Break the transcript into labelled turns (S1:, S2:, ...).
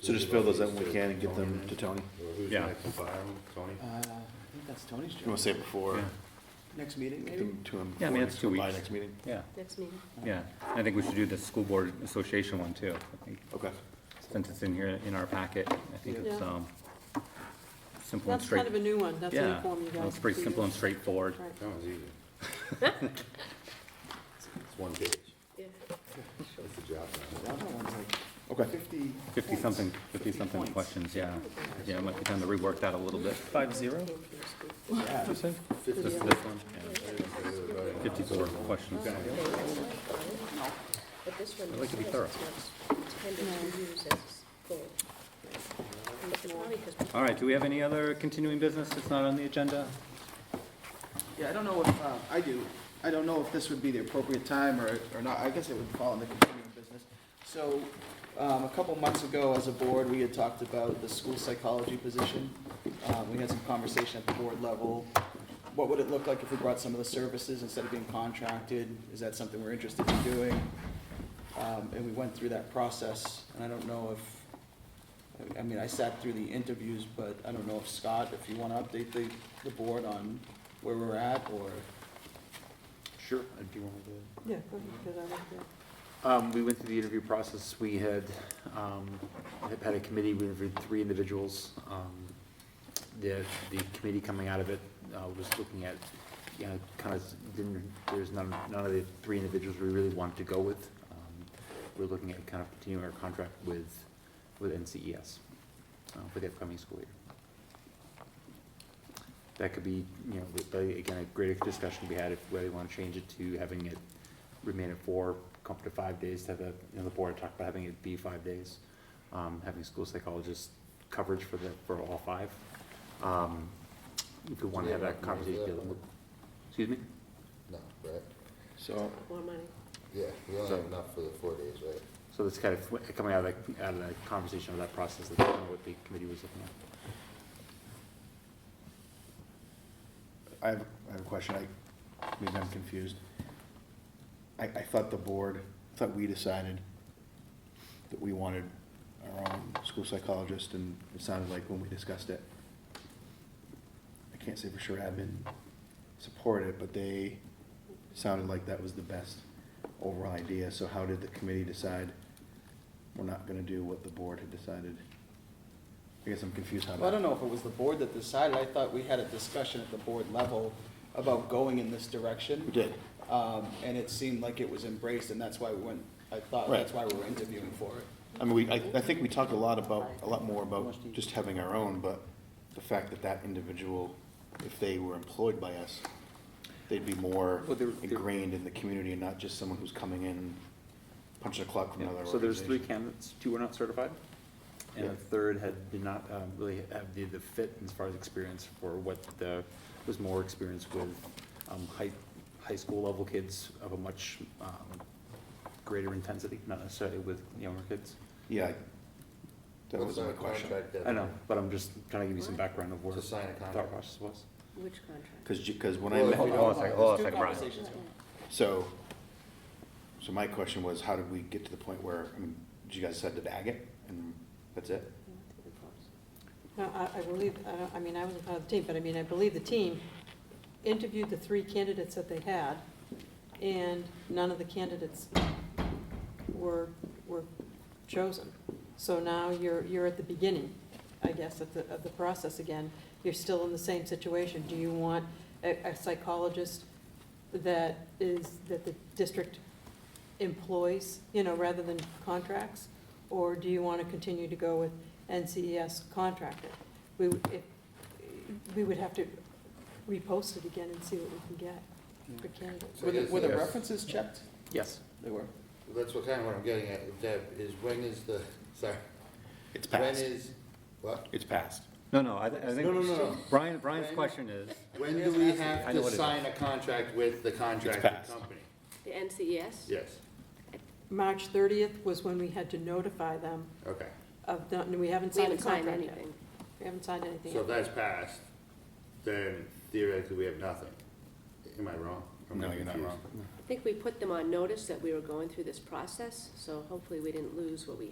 S1: So just fill those out when we can and get them to Tony.
S2: Or who's
S3: Yeah.
S2: next to fire them, Tony?
S4: Uh, I think that's Tony's
S1: You wanna
S4: job.
S1: say it before,
S3: Yeah.
S4: Next meeting,
S1: get
S4: maybe?
S1: them to him
S3: Yeah, I
S1: before
S3: mean, it's
S1: next-
S3: two
S1: by
S3: weeks.
S1: next meeting?
S3: Yeah,
S5: Next meeting.
S3: yeah. I think we should do the school board association one too. I think,
S1: Okay.
S3: since it's in here, in our packet, I think it's,
S5: Yeah.
S3: um, simple and
S5: That's
S3: straight.
S5: kind of a new one, that's a new
S3: Yeah,
S5: form you guys.
S3: it's pretty simple and straightforward.
S5: Right.
S2: That one's easy. It's one page.
S5: Yeah.
S2: That's the job. man.
S4: The other one's like
S1: Okay,
S4: fifty.
S3: Fifty-something,
S4: points.
S3: fifty-something
S4: points.
S3: questions, yeah. Yeah, it might be time to rework that a little bit.
S6: Five zero?
S4: Yeah.
S3: This, this one, fifty-four questions.
S7: But this one.
S3: I'd like to be
S7: is-
S3: thorough.
S7: It's kind of used as gold. And it's probably 'cause we
S3: All right, do we have any other continuing business that's not on the agenda?
S4: Yeah, I don't know if, uh, I do, I don't know if this would be the appropriate time or, or not, I guess it would fall in the continuing business. So, um, a couple months ago, as a board, we had talked about the school psychology position. Um, we had some conversation at the board level, what would it look like if we brought some of the services instead of being contracted? Is that something we're interested in doing? Um, and we went through that process, and I don't know if, I- I mean, I sat through the interviews, but I don't know if Scott, if you wanna update the, the board on where we're at, or,
S8: Sure. Uh, Do you want me to?
S5: Yeah, go ahead, 'cause I like that.
S8: Um, we went through the interview process, we had, um, had- had a committee, we interviewed three individuals. Um, The, the committee coming out of it, uh, was looking at, you know, kind of, didn't, there's none, none of the three individuals we really wanted to go with. Um, We're looking at kind of continuing our contract with, with NCES, uh, for the upcoming school year. That could be, you know, but again, a greater discussion we had if whether we want to change it to having it remain at four, come up to five days, to have a, you know, the board talked about having it be five days. Um, having school psychologist coverage for the, for all five. Um, if we want to have that conversation, dealing with- excuse me?
S2: No, right?
S1: so
S5: More money.
S2: Yeah, we only have enough for the four days, right?
S8: So that's kind of coming out of, the- out of the conversation of that process, that's kind of what the committee was looking at.
S1: I have, I have a question, I, maybe I'm confused. I, I thought the board, I thought we decided that we wanted our own school psychologist, and it sounded like when we discussed it, I can't say for sure admin supported it, but they sounded like that was the best overall idea, so how did the committee decide we're not gonna do what the board had decided? I guess I'm confused how that.
S4: Well, I don't know if it was the board that decided, I thought we had a discussion at the board level about going in this direction.
S1: We did.
S4: Um, and it seemed like it was embraced, and that's why we went, I thought that's why we were interviewing for it.
S1: I mean, we, I, I think we talked a lot about, a lot more about just having our own, but the fact that that individual, if they were employed by us, they'd be more
S8: Well, they're- they're-
S1: ingrained in the community and not just someone who's coming in, punching the clock from another
S8: So there's three
S1: organization.
S8: candidates, two were not certified, and
S1: Yeah.
S8: the third had, did not um, really have the, the fit as far as experience for what the, was more experience with um, high, high school level kids of a much um, greater intensity, not necessarily with younger kids.
S1: Yeah. That was
S2: What's
S1: my
S2: our
S1: question,
S2: contract
S8: I
S2: deadline?
S8: know, but I'm just trying to give you some background of where
S2: To
S8: the
S2: sign a
S8: thought
S2: contract.
S8: process was.
S7: Which contract?
S1: cause, you- cause when I
S2: Well, if
S1: met.
S2: we don't-
S3: Hold on a second, hold on a
S4: There's
S3: second,
S4: two
S3: Brian.
S4: conversations going.
S1: So, so my question was, how did we get to the point where, I mean, did you guys decide to bag it, and that's it?
S5: No, I, I believe, I don't- I mean, I wasn't part of the team, but I mean, I believe the team interviewed the three candidates that they had, and none of the candidates were, were chosen. So now you're, you're at the beginning, I guess, of the, of the process again. You're still in the same situation. Do you want a, a psychologist that is, that the district employs, you know, rather than contracts? Or do you want to continue to go with NCES contractor? We would, if, we would have to repost it again and see what we can get for candidates.
S2: So
S4: Were the,
S2: is
S4: were the
S2: this-
S4: references checked?
S8: Yes,
S4: They were.
S2: That's what kind of what I'm getting at, Deb, is when is the, sorry,
S1: It's
S2: when
S1: passed,
S2: is, what?
S1: it's passed.
S3: No, no, I, th- I
S2: No, no, no,
S3: think,
S2: no.
S3: Brian, Brian's
S2: Brian?
S3: question is,
S2: When do we have
S3: I know
S2: to
S3: what it is.
S2: sign a contract with the contracted
S1: passed.
S2: company?
S7: The E NCES?
S2: Yes,
S5: March thirtieth was when we had to notify them
S2: okay,
S5: of, the- and we haven't
S7: We
S5: signed a
S7: haven't signed
S5: contract yet.
S7: anything.
S5: We haven't signed anything.
S2: so if
S5: yet.
S2: that's passed, then theoretically we have nothing. Am I wrong? Am I
S1: No, you're not
S2: confused?
S1: wrong.
S7: I think we put them on notice that we were going through this process, so hopefully we didn't lose what we